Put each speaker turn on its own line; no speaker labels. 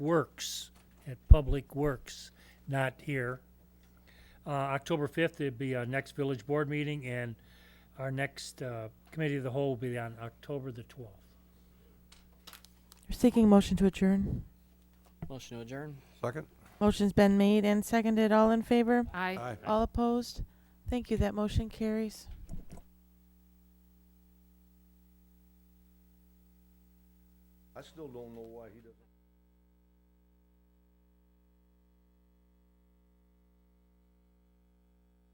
Works, at Public Works, not here. Uh, October fifth, it'd be our next village board meeting, and our next, uh, committee of the whole will be on October the twelfth.
We're seeking motion to adjourn.
Motion to adjourn.
Second?
Motion's been made and seconded. All in favor?
Aye.
All opposed? Thank you. That motion carries.
I still don't know why he doesn't.